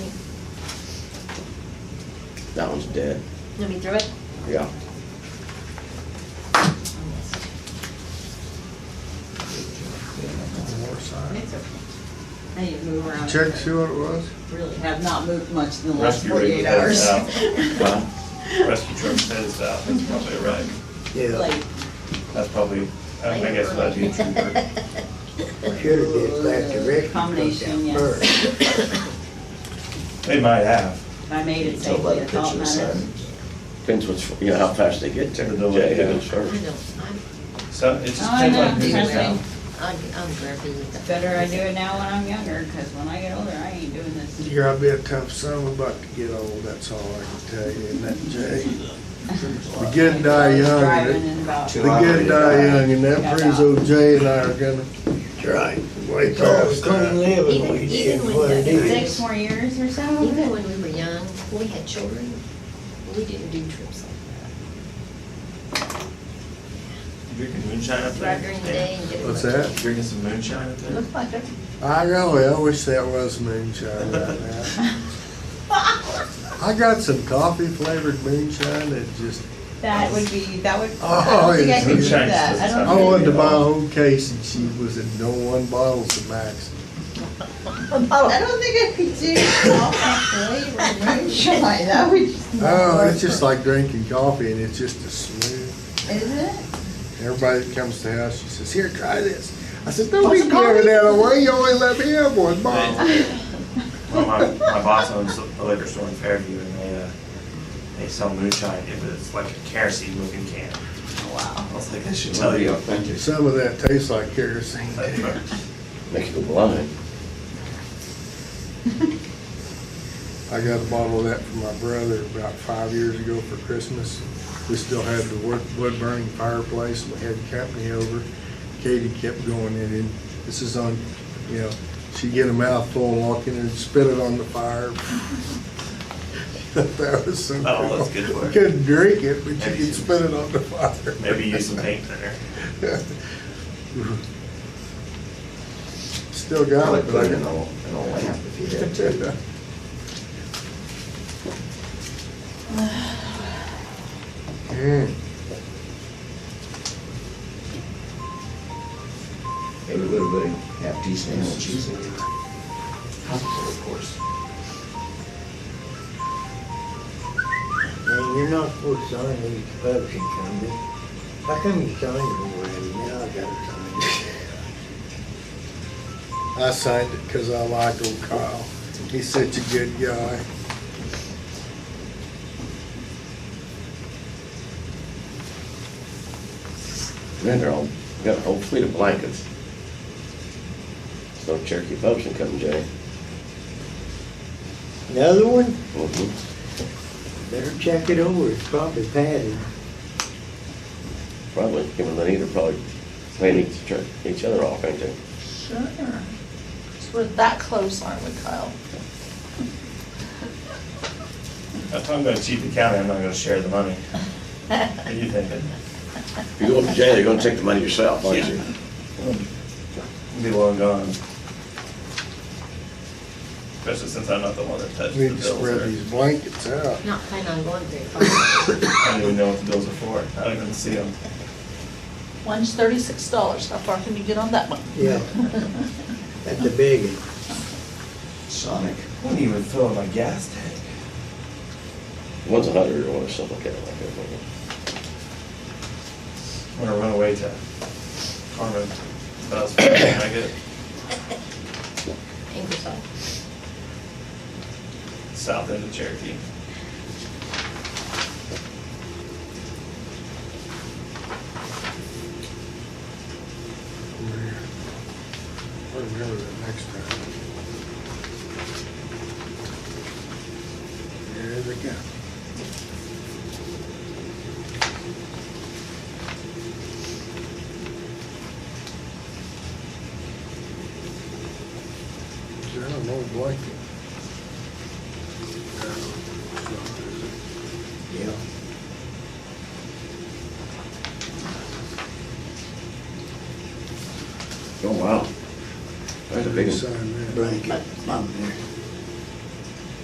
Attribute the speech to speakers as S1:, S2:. S1: That one's dead,
S2: Let me throw it.
S1: yeah.
S3: War side.
S2: It's okay. I need to move around.
S3: Check, see what it was?
S2: Really have not moved much in the last
S4: Rescue rig
S2: forty-eight
S4: says
S2: hours.
S4: south.
S1: Well,
S4: Rescue truck says south, that's probably right.
S2: Like-
S4: That's probably, I I guess that'd be cheaper.
S5: Should have just left the rescue truck
S2: Combination,
S5: down
S2: yes.
S5: first.
S4: They might have.
S2: I made it Oh, safely, it's all matters.
S1: Depends what's, you know, how fast they get there.
S4: The delay,
S1: Yeah,
S4: yeah.
S1: sure.
S6: I know, I'm,
S4: So it just
S2: Oh, I
S4: depends
S2: know,
S4: on who's
S2: trust
S4: down.
S2: me.
S6: I'm, I'm grumpy with the.
S2: Better I do it now when I'm younger, because when I get older, I ain't doing this.
S3: Here, I'll be a tough son, I'm about to get old, that's all I can tell you, and that, Jay. The good die young,
S2: Driving
S3: and
S2: in
S3: the
S2: about,
S3: the good die young, and that proves old Jay and I are gonna
S5: That's right.
S3: wake
S5: Because
S3: up.
S5: we couldn't live if
S6: Even,
S5: we
S6: even
S5: did
S6: when,
S5: what it
S2: six
S5: is.
S2: more years or so?
S6: the- even when we were young, we had children, we didn't do trips like
S4: Drinking moonshine up
S6: that.
S4: there?
S6: Drive during the day and get.
S3: What's that?
S4: Drinking some moonshine up there?
S6: Look like it.
S3: I know, I wish that was moonshine right now. I got some coffee flavored moonshine that just,
S2: That would be, that would, I
S3: Oh,
S2: don't think I could do
S4: it's-
S2: that. I
S3: I
S2: don't
S3: wanted
S2: think.
S3: to buy a whole case, and she was at no one bottle's the max.
S2: I don't think I could do all that flavor moonshine, that would,
S3: Oh, it's just like drinking coffee, and it's just a smooth.
S2: isn't it?
S3: Everybody that comes to the house, she says, "Here, try this." I said, "Don't be giving that away. You only let me have one bottle."
S4: Well, my, my boss owns a liquor store in Fairview and they, uh, they sell moonshine, if it's like a kerosene looking can.
S2: Oh, Wow.
S4: I was like, that should tell you.
S3: Some of that tastes like kerosene.
S1: Make you go blind.
S3: I got a bottle of that for my brother about five years ago for Christmas. We still had the wood, wood burning fireplace. We had company over. Katie kept going in, and this is on, you know, she'd get a mouthful and walk in and spit it on the fire. that was so
S4: Oh, that's
S3: cool.
S4: good for her.
S3: Couldn't drink it, but
S4: Maybe
S3: you could
S4: some-
S3: spit it on the fire.
S4: Maybe use some paint thinner.
S3: Still got it, but I
S1: an
S3: can.
S1: old, an old lamp if you had to.
S3: Well, Hmm.
S1: Everybody have peace and cheese.
S4: Of course.
S5: And you're not supposed to sign these publishing companies. How come you signed them already? Now I gotta sign it.
S3: I signed it because I like old Kyle. He's such a good guy.
S1: Man, they're all, got a whole fleet of blankets. So Cherokee Publishing come, Jay.
S5: Another one?
S1: Mhm. Mm-hmm.
S5: Better check it over. It's probably padded.
S1: Probably, given they either probably playing each, tr- each other off, ain't they?
S7: Sure. We're that close, aren't we, Kyle?
S4: If I'm gonna cheat the county, I'm not gonna share the money. What do you thinking?
S1: If you go up to Jay, they're gonna take the money yourself, aren't you?
S4: Be long gone. Especially since I'm not the one that touched
S3: We
S4: the
S3: need to
S4: bills.
S3: spread
S4: or-
S3: these blankets out.
S6: Not planning on going very far.
S4: I don't even know what the bills are for. I don't even see them.
S7: One's thirty-six dollars. How far can you get on that one?
S5: Yeah. That's a big one.
S4: Sonic. I wouldn't even fill in my gas tank.
S1: One's a hundred or one or something like that, like that. wasn't it?
S4: I'm gonna run away to Carmen. That was, I get
S6: Ingersoll.
S4: south end of Cherokee.
S3: I remember that next time. There they go. Is there an old blanket? No, it's not, is it?
S5: Yeah.
S1: Oh, wow. That's a big one.
S3: Sign that.
S5: Blanket. Mom there.